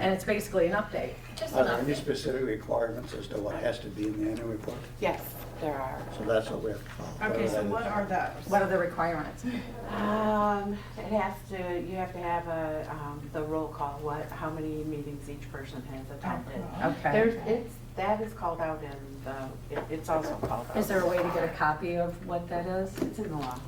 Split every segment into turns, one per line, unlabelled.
And it's basically an update, just
Are
an
there any
update.
specific requirements as to what has to be in the annual report?
Yes, there are.
So that's what we have to follow.
Okay, so what are those?
What are the requirements?
Um, it has to, you have to have a, um, the roll call, what, how many meetings each person has attended.
Okay.
There's, it's, that is called out in the, it- it's also called out.
Is there a way to get a copy of what that is?
It's in the law.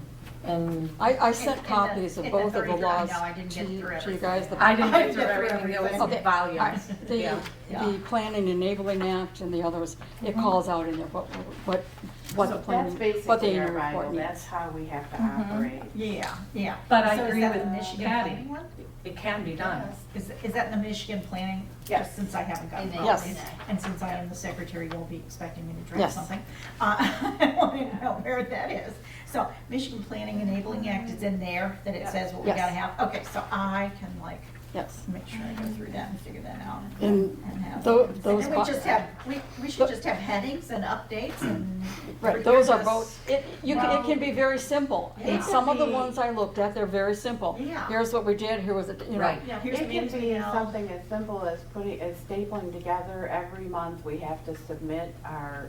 And
I, I
In
sent
the-
copies
in
of
the
both of the
33, I
laws
know, I didn't
to
get
you
through
to you guys.
everything.
The-
I didn't
I
get
didn't
through
get through
everything, there was
Okay.
volumes.
The, the Planning and Enabling Act and the others, it calls out in there what, what, what the
Mm-hmm. So that's
planning, what the
basically our
annual report
Bible, that's
needs.
how we have to operate.
Mm-hmm. Yeah, yeah.
But I
So is
agree
that
with
the Michigan
Patty.
planning one?
It can be done.
Is, is that in the Michigan planning?
Yes.
Just Since I haven't gotten
In
it.
the-
Yes.
in the-
And since I am the secretary, you'll be expecting me to draft
Yes.
something. Uh, I want to know where that is. So Michigan Planning Enabling Act is in there, that it says what we
Yes.
gotta have. Okay, so I can like,
Yes.
make sure I go through that and figure that out.
And
have-
tho-
And
those
then we
bo-
just have, we, we should just have headings and updates and.
Mm. Right, those are
Because-
both, it, you can, it can be very simple.
Yeah.
And some of the ones I looked at, they're very simple.
Yeah.
Here's what we did, here was, it, you know,
Right.
Yeah, here's the
It can
meetings we
be
held.
something as simple as putting, as stapling together every month, we have to submit our,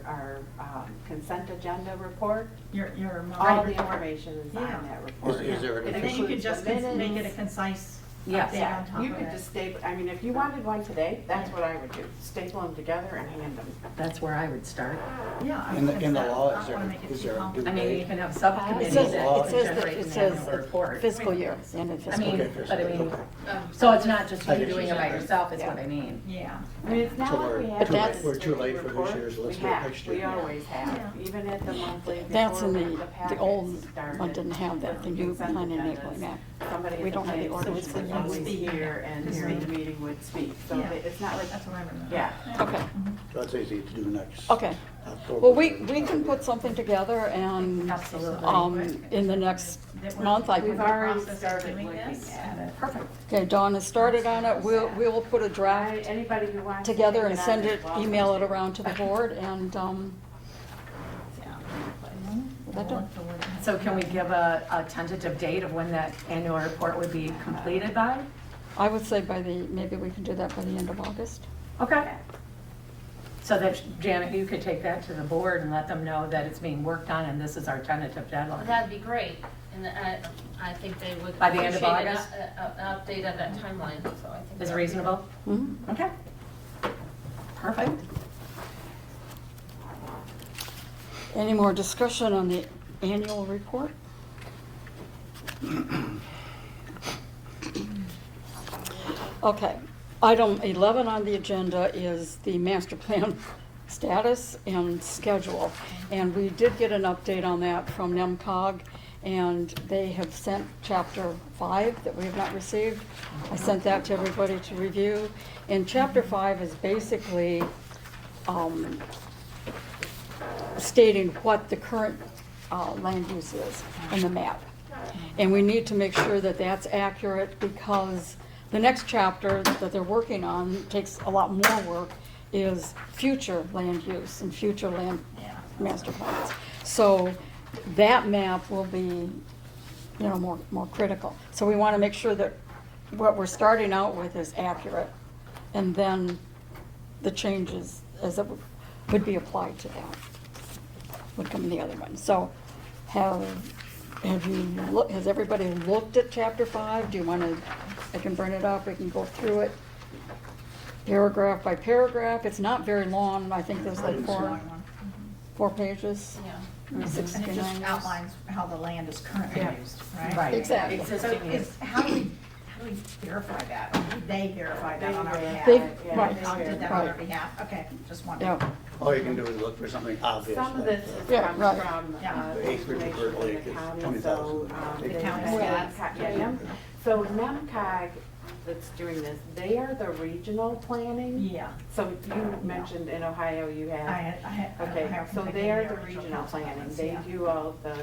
our um, consent agenda report.
Your, your. monthly
All the
report.
information is
Yeah.
on that report.
Is- is there an
It
And then you
includes
could just
the
cons- make it a
minutes.
concise
Yes.
update on
Yeah,
top
you
of
could
it.
just staple, I mean, if you wanted one today, that's what I would do, staple them together and hand them.
That's where I would start.
Yeah. I
In the-
would
in the
think so.
law,
I
is
don't wanna
there-
make it
is
too
there a
complicated.
I mean, you can have subcommittees
says-
that
it
says that-
generate
it
an
says
annual report.
fiscal year, end of
I
fiscal
mean,
year.
Okay, fiscal,
but I mean,
okay.
so it's not just
I
you
guess
doing
you
it by
should-
yourself is
yeah.
what I mean.
Yeah.
I mean, it's
So
not
we're
like we
too
have.
late-
to
we're too late for this
report.
year's, let's
We
do it
have-
next
We
year.
always have,
Yeah.
even at the monthly.
That's
before
in
we-
the, the
packets
old one
started
didn't have that,
with
the new
consent
plan
agendas.
enabling act.
Somebody
We
at the
don't have the
planning
orders
commission
for
was
that.
always here and
Just
here in the
me.
meeting would speak, so
Yeah.
that it's not like,
That's what I remember.
yeah.
Okay,
So That's easy to do next.
okay.
October.
Well, we, we can put something together and,
Absolutely.
um, in the next
That we're-
month, I
We've
can
already
process of
started
doing
looking
this?
at it.
Perfect.
Okay, Dawn has started on it. We'll, we will put a
Right,
draft
Anybody who wants. to
together
take
and
on
send
is
it,
welcome
email it
to.
around to the board and, um,
Yeah.
that don't-
So can we give a, a tentative date of when that annual report would be completed by?
I would say by the, maybe we can do that by the end of August.
Okay. So that, Janet, you could take that to the board and let them know that it's being worked on and this is our tentative
Well,
deadline.
That'd be great, and I, I think they would.
By the end of
appreciate an-
August?
a- a- An update of that timeline, so I think.
Is
that'd be-
reasonable?
Mhm.
Okay. Perfect.
Any more discussion on the annual report? Okay, item 11 on the agenda is the master plan status and schedule. And we did get an update on that from NEMCOG, and they have sent chapter five that we have not received. I sent that to everybody to review. And chapter five is basically um, stating what the current uh, land use is in the map. And we need to make sure that that's accurate because the next chapter that they're working on takes a lot more work is future land use and future land
Yeah.
master plans. So that map will be, you know, more, more critical. So we want to make sure that what we're starting out with is accurate. And then the changes as it would be applied to that would come the other one. So have, have you, loo- has everybody looked at chapter five? Do you want to, I can burn it up, we can go through it paragraph by paragraph. It's not very long, I think there's like four, four pages.
Yeah.
Six
And it
to
just
nine years.
outlines how the land is currently
Yeah.
used, right?
Right.
Exactly.
So
Existing use.
is, how do we, how do we verify that? Or do They verify that on our behalf?
They-
Yeah,
right.
They did that on our
Right.
behalf, okay, just wondering.
Yeah,
All you can do is look for something obvious.
Some of
like uh,
this
the-
is
Yeah,
comes
right.
from,
Yeah.
uh,
The acreage
information
of Bird
from the
Lake is
county, so,
20,000.
um,
The
they-
county
yeah,
stats.
yeah, NEM- So NEMCOG that's doing this, they are the regional planning.
Yeah.
So you mentioned in Ohio you
I, uh,
have,
I- I have.
okay, so they are the regional planning,
plans.
they do all the,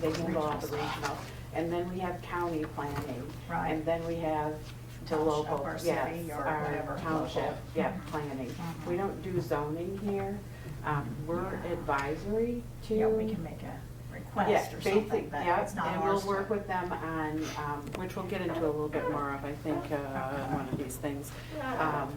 they handle all the
Regional stuff.
regional. And then we have county planning.
Right.
And then we have the
Township
local,
or
yes,
city or
our
whatever,
township,
local.
yeah, planning.
Mhm.
We don't do zoning here, um, we're advisory to.
Yeah, we can make a request or
Yeah,
something,
basic-
but
yeah,
it's not
And
ours.
we'll
to-
work with them on, um, which we'll get into a little bit more of, I think, uh, one of these things. Um,